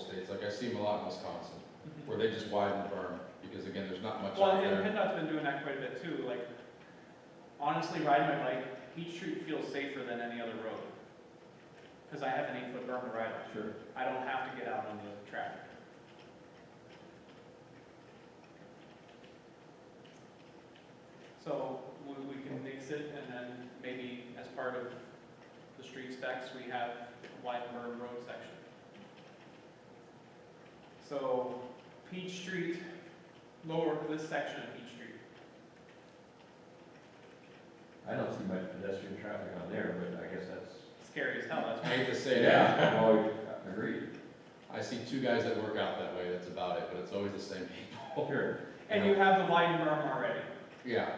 states, like I see them a lot in Wisconsin, where they just widen the berm, because again, there's not much Well, out and there. PennDOT's been doing that quite a bit too, like, honestly, riding my bike, each street feels safer than any other road. Cause I have an eight-foot berm to ride on, Sure. I don't have to get out on the track. So, we, we can mix it, and then maybe as part of the street specs, we have wide berm road section. So, Peach Street lower this section of Peach Street. I don't see much pedestrian traffic on there, but I guess that's. Scary as hell, that's I why. hate to say that, Well, agreed. I see two guys that work out that way, that's about it, but it's always the same people. Sure. And you have the wide berm already. Yeah,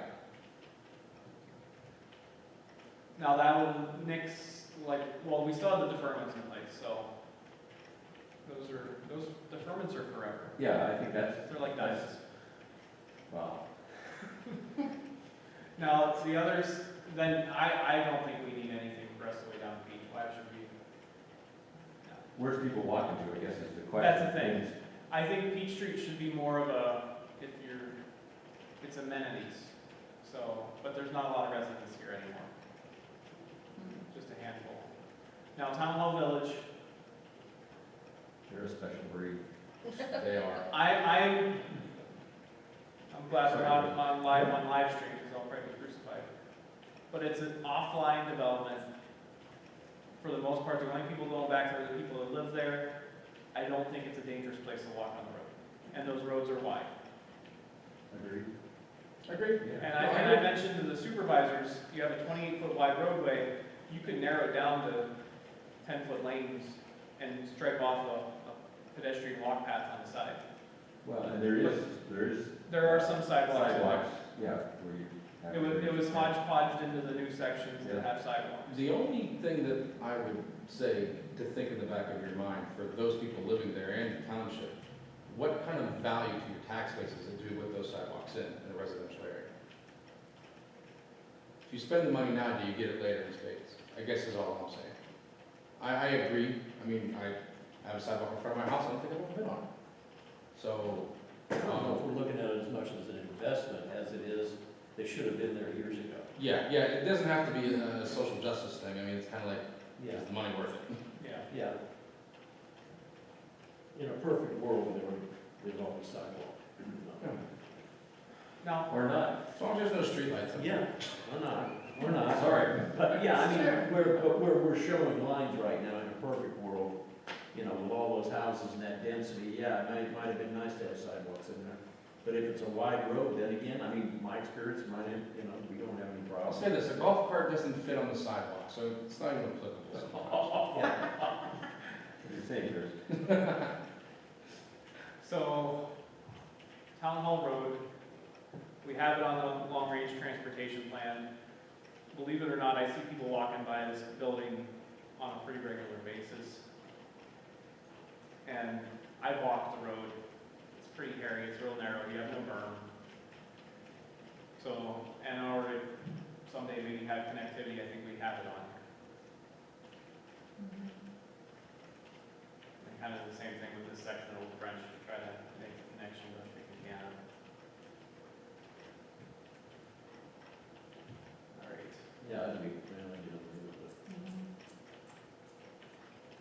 Now that will nix, like, well, we still have the deferments in place, so. Those are, those deferments are forever. Yeah, I think that's, They're like dice. wow. Now, it's the others, then I, I don't think we need anything for us to way down the beach. Why should we? Where's people walking to, I guess is the question. That's the thing. I think Peach Street should be more of a, if you're, it's amenities. So, but there's not a lot of residents here anymore. Just a handful. Now, Town Hall Village, They're a special breed. they are. I, I'm, I'm glad we're not on live, on live stream, because I'll probably be crucified. But it's an offline development. For the most part, the only people going back there are the people that live there. I don't think it's a dangerous place to walk on the road. And those roads are wide. Agreed. Agreed. And I, and I mentioned to the supervisors, you have a twenty-eight foot wide roadway, you could narrow it down to ten foot lanes and stripe off a, a pedestrian walk path on the side. Well, and there is, there is There are some sidewalks. in there. sidewalks, yeah, where you. have- It was, it was hodgepodge into the new sections that have sidewalks. The only thing that I would say to think in the back of your mind for those people living there and the township, what kind of value to your tax base does it do with those sidewalks in, in a residential area? If you spend the money now, do you get it later in spades? I guess is all I'm saying. I, I agree, I mean, I have a sidewalk in front of my house, I don't think I've ever been on it. So, I don't know if we're looking at it as much as an investment as it is, they should have been there years ago. yeah, yeah, it doesn't have to be a a social justice thing, I mean, it's kind of like, Yeah, is the money worth it? Yeah. yeah. In a perfect world, there would, there's always sidewalk. Now, Or not. As long as there's no streetlights up there. Yeah, we're not, we're not, Sorry. But yeah, I mean, we're, but we're, we're showing lines right now in a perfect world, you know, with all those houses and that density, yeah, it might, might have been nice to have sidewalks in there. But if it's a wide road, then again, I mean, my experience, mine, you know, we don't have any I'll problems. say this, a golf cart doesn't fit on the sidewalk, so it's not even applicable. It's dangerous. so, Town Hall Road, we have it on the long-range transportation plan. Believe it or not, I see people walking by this building on a pretty regular basis. And I walk the road, it's pretty hairy, it's real narrow, you have no berm. So, and already someday maybe have connectivity, I think we have it on here. And kind of the same thing with this section of Old French, to try to make a connection, but I think we can. All right, Yeah, I mean, well, you don't do it,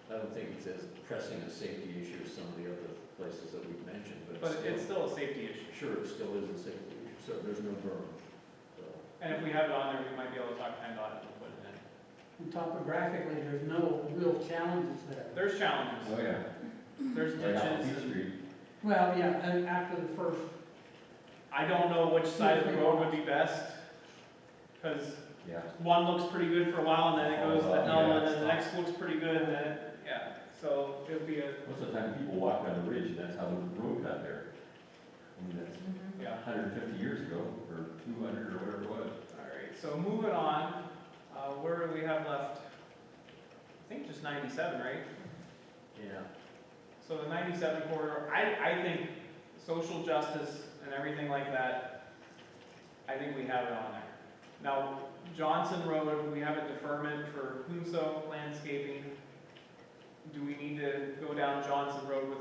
but. I don't think it's as pressing a safety issue as some of the other places that we've mentioned, but. but it's still a still- safety issue, Sure, it still is a safety issue, so there's no berm, so. and if we have it on there, we might be able to talk to PennDOT and put it in. And topographically, there's no real challenges there. There's Oh, challenges, yeah. there's Right out Peach ditches, and Street. Well, yeah, and after the first, I don't know which side of the road would be best, because Yeah. one looks pretty good for a while, and then it goes to Oh, another, yeah, and it's then the tough. next looks pretty good, and then, yeah, so it'd be a, Most of the time, people walk down the ridge, and that's how the road got there. I mean, that's yeah. hundred and fifty years ago, or two hundred, or whatever it was. All right, so moving on, uh, where do we have left? I think just ninety-seven, right? Yeah, So the ninety-seven corridor, I, I think social justice and everything like that, I think we have it on there. Now, Johnson Road, we have a deferment for Hunso landscaping. Do we need to go down Johnson Road with